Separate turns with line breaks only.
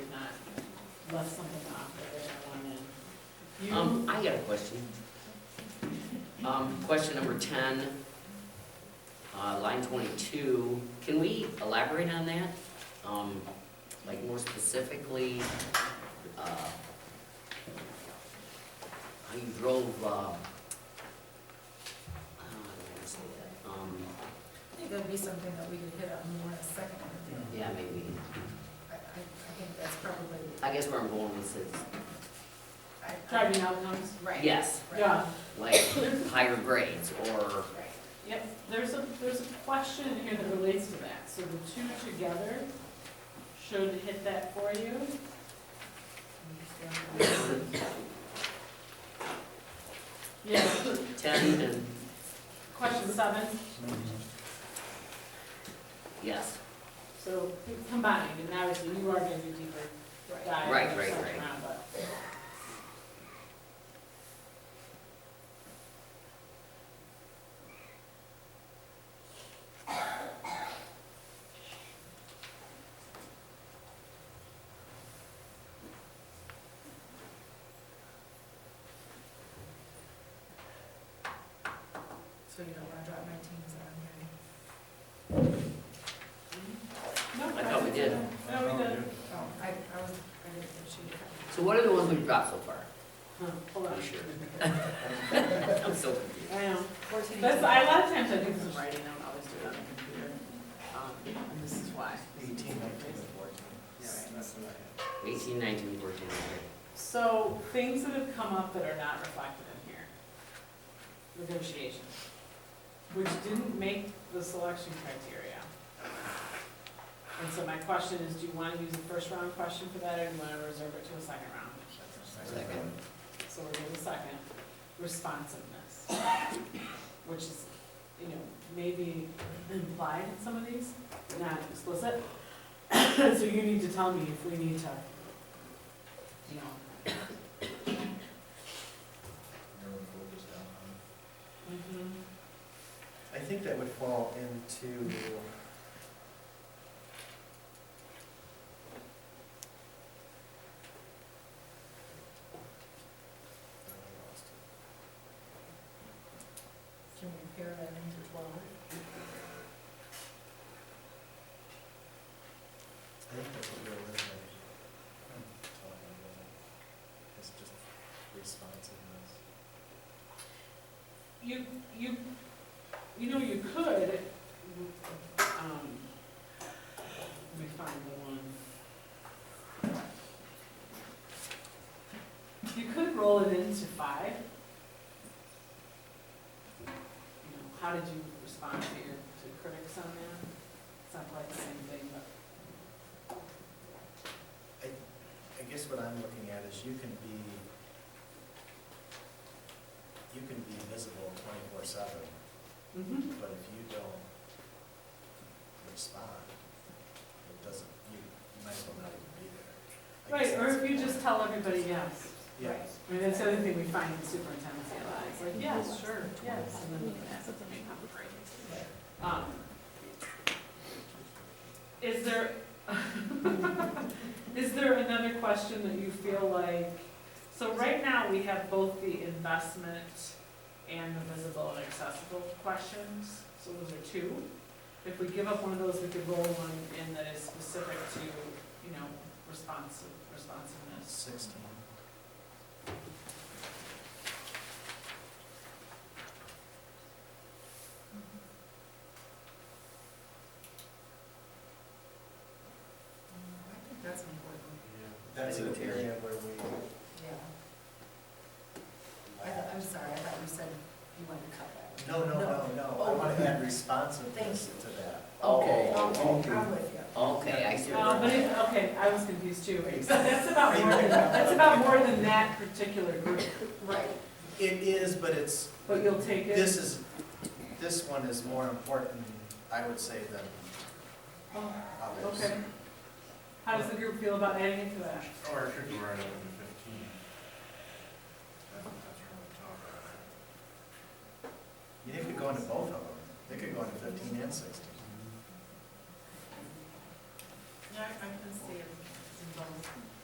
left something off there that I wanted.
Um, I got a question. Um, question number ten, uh, line twenty-two, can we elaborate on that? Um, like more specifically, uh, how you drove, uh, I don't know how to say that, um,
I think that'd be something that we could hit on more in a second.
yeah, maybe,
I, I, I think that's probably,
I guess where I'm going with this,
I,
You-
I,
Driving outcomes,
right.
yes,
right,
yeah,
like higher grades or,
Right.
yep, there's a, there's a question in here that relates to that, so the two together should hit that for you. Yeah,
ten and,
question seven,
yes,
so combined, and obviously you are gonna do deeper
Right.
dive.
Right, right,
second
right.
round, but-
So you don't wanna drop my teams on here.
No,
I thought we did.
No, we did.
Oh, I, I was, I didn't think she had.
so what are the ones we've dropped so far?
Huh, Hold on.
I'm sure. I'm so confused.
I know.
Fourteen.
That's, I, a lot of times I do some writing, I don't always do it on the computer. Um, And this is why.
Eighteen, nineteen, and fourteen.
Yeah,
That's what I had.
Eighteen, nineteen, fourteen, okay.
So things that have come up that are not reflected in here. Negotiations, which didn't make the selection criteria. And so my question is, do you want to use the first round question for that or do you want to reserve it to a second round?
Second.
So we're doing the second, responsiveness, which is, you know, maybe implied in some of these, not explicit. So you need to tell me if we need to, you know,
Everyone wrote this down, huh?
Mhm.
I think that would fall into.
Can we pair that into twelve?
I think that's what you're eliminating. Talking about It's just responsiveness.
You, you, you know, you could, um, let me find the one. You could roll it into five. You know, how did you respond to your, to critics on that? It's not quite the same thing, but.
I guess what I'm looking at is you can be, you can be visible twenty-four seven,
Mm-hmm.
but if you don't respond, it doesn't, you you might as well not even be there. I
Right,
guess
or
that's
if you
the
just
point.
tell everybody yes.
Yeah,
I mean, that's the other thing we find in superintendent's lives, like, yes, sure, yes, and then that's something we have to break. Um, Is there, is there another question that you feel like, so right now, we have both the investment and the visible and accessible questions, so those are two. If we give up one of those, we could roll one in that is specific to, you know, responsive, responsiveness.
sixteen.
I think that's important.
That's an
Interior.
area where we
Yeah. I,
lack.
thought- I'm sorry, I thought you said you wanted to cut that.
No, no, no, no, I
Oh.
want to add responsiveness to that.
Okay.
Okay, I'm with you.
Okay, I see. what
Uh,
you're
but
doing.
it, okay, I was confused too. So that's about more, than- that's about more than that particular group.
Right.
It is, but it's,
But you'll take it?
this is, this one is more important, I would say, than
Oh,
others.
Okay. How does the group feel about adding it to that?
Or it could go right up Oh, to fifteen. That- That's really tough.
You could go into both of them. They could go into fifteen and sixteen.
Yeah, I can see it involved.